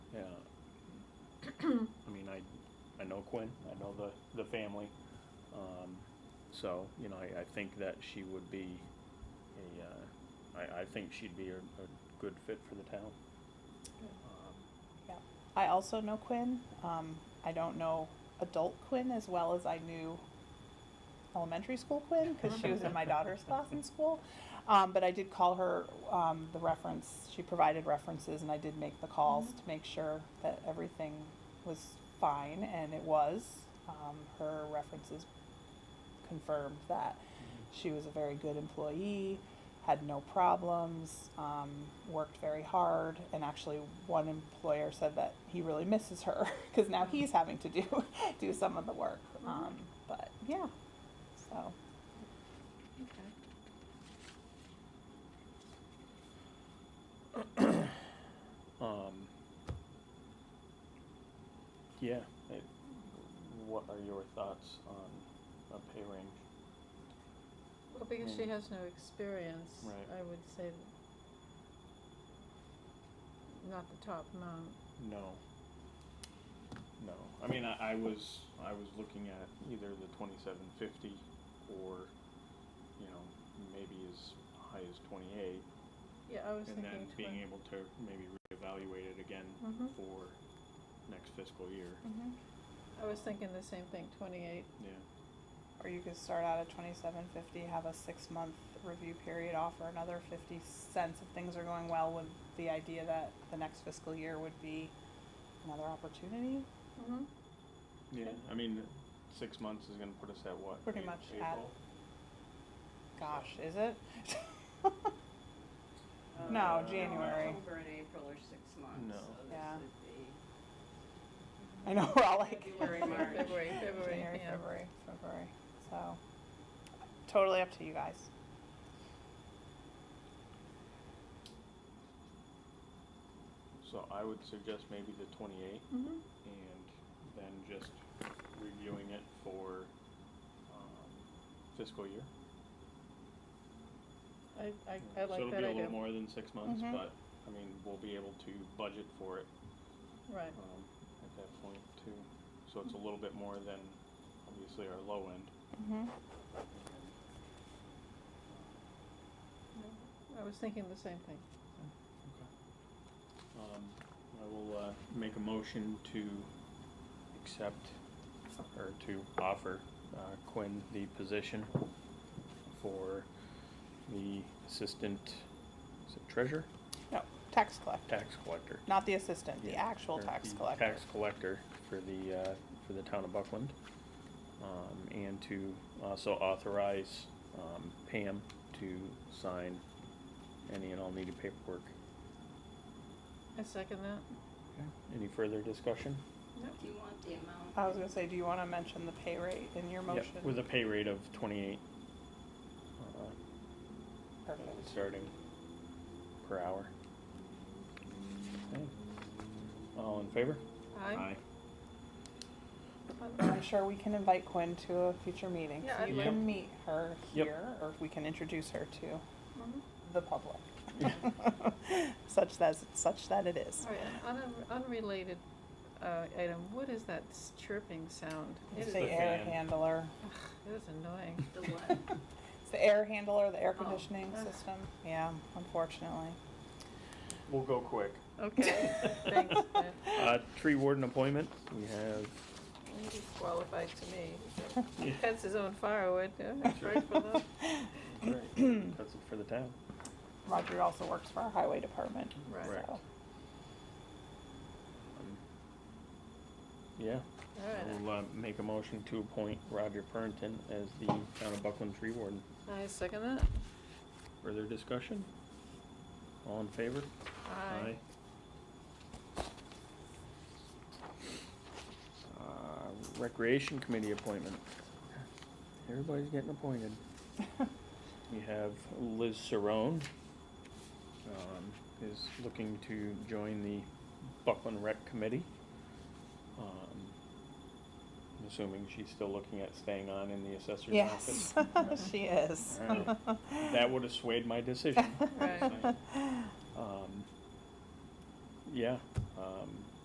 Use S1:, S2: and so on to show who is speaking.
S1: know Quinn, I know the, the family. Um, so, you know, I, I think that she would be a, uh, I, I think she'd be a, a good fit for the town. Um,
S2: Yeah. I also know Quinn. Um, I don't know adult Quinn as well as I knew elementary school Quinn because she was in my daughter's class in school. Um, but I did call her um, the reference. She provided references, and I did make the calls to make sure that everything was fine, and it was. Um, her references confirmed that she was a very good employee, had no problems, um, worked very hard, and actually one employer said that he really misses her because now he's having to do do some of the work. Um, but yeah, so
S1: Um, yeah, it, what are your thoughts on a pay range?
S3: Well, because she
S1: Mm.
S3: has no experience,
S1: Right.
S3: I would say not the top amount.
S1: No. No, I mean, I, I was, I was looking at either the twenty-seven fifty or, you know, maybe as high as twenty-eight.
S3: Yeah, I was
S1: And then
S3: thinking
S1: being
S3: twen-
S1: able to maybe reevaluate it again
S3: Mhm.
S1: for next fiscal year,
S3: I was thinking the same thing, twenty-eight.
S1: yeah.
S2: Or you could start out at twenty-seven fifty, have a six-month review period, offer another fifty cents if things are going well with the idea that the next fiscal year would be another opportunity.
S3: Mm-hmm.
S1: Yeah, I mean, six months is gonna put us at what?
S2: Pretty
S1: A-
S2: much at-
S1: April?
S2: Gosh, is it?
S4: Uh,
S2: No,
S1: Uh,
S2: January.
S4: October and April are six months,
S1: No.
S4: so
S2: Yeah.
S4: this would be
S2: I know we're all like
S4: February, March.
S3: February, February,
S2: January,
S3: yeah.
S2: February, February. So totally up to you guys.
S1: So I would suggest maybe the twenty-eight
S3: Mm-hmm.
S1: and then just reviewing it for, um, fiscal year.
S3: I, I, I
S1: Um, So
S3: like
S1: it'll
S3: that
S1: be a
S3: idea,
S1: little
S3: Mm-hmm.
S1: more than six months,
S2: Mhm.
S1: but, I mean, we'll be able to budget for it,
S3: right,
S1: um, at that point too. So it's a little bit more than obviously our low end.
S2: Mm-hmm.
S3: I was thinking the same thing.
S1: Um, I will, uh, make a motion to accept or to offer, uh, Quinn the position for the assistant, is it treasurer,
S2: No, tax collector,
S1: tax collector?
S2: not the assistant, the
S1: Yeah,
S2: actual
S1: or
S2: tax
S1: the
S2: collector.
S1: Tax collector for the, uh, for the town of Buckland. Um, and to also authorize, um, Pam to sign any and all needed paperwork.
S3: I second that.
S1: Any further discussion?
S4: Do you want the amount?
S2: I was gonna say, do you wanna mention the pay rate in your
S1: Yep,
S2: motion?
S1: With a pay rate of twenty-eight. uh,
S2: Perfect.
S1: Starting per hour. Okay. All in favor?
S3: Aye.
S2: And I'm sure we can invite Quinn to a future meeting,
S3: Yeah,
S2: so
S3: I'd
S2: you
S1: like-
S2: can meet her
S1: Yep.
S2: here, or we can introduce her to
S3: Mhm.
S2: the public. Such that, such that it is.
S3: All right, an unre- unrelated, uh, item, what is that s- chirping sound? It
S2: It's
S3: is,
S2: the
S1: the
S2: air
S1: fan.
S2: handler,
S3: ugh, it is annoying.
S4: The what?
S2: it's the air handler, the air
S4: Oh.
S2: conditioning
S3: Ugh.
S2: system, yeah, unfortunately.
S1: We'll go quick.
S3: Okay, thanks, Pat.
S1: Uh, tree warden appointment, we have,
S3: He's qualified to me. He Cuts his own firewood, yeah, that's right for them.
S1: great, that's it for the town.
S2: Roger also works for our highway department,
S3: Right.
S1: Correct.
S2: so.
S1: Um, Yeah,
S3: All
S1: we'll, uh, make a motion to appoint Roger Pernton as the town of Buckland tree warden.
S3: right, I second that.
S1: Further discussion? All in favor?
S3: Aye.
S1: Uh, Recreation Committee appointment. Everybody's getting appointed. We have Liz Saron, um, is looking to join the Buckland Rec Committee. Um, I'm assuming she's still looking at staying on in the assessor's office.
S2: Yes, she is.
S1: Alright. That would have swayed my decision.
S3: Right.
S1: Um, yeah, um,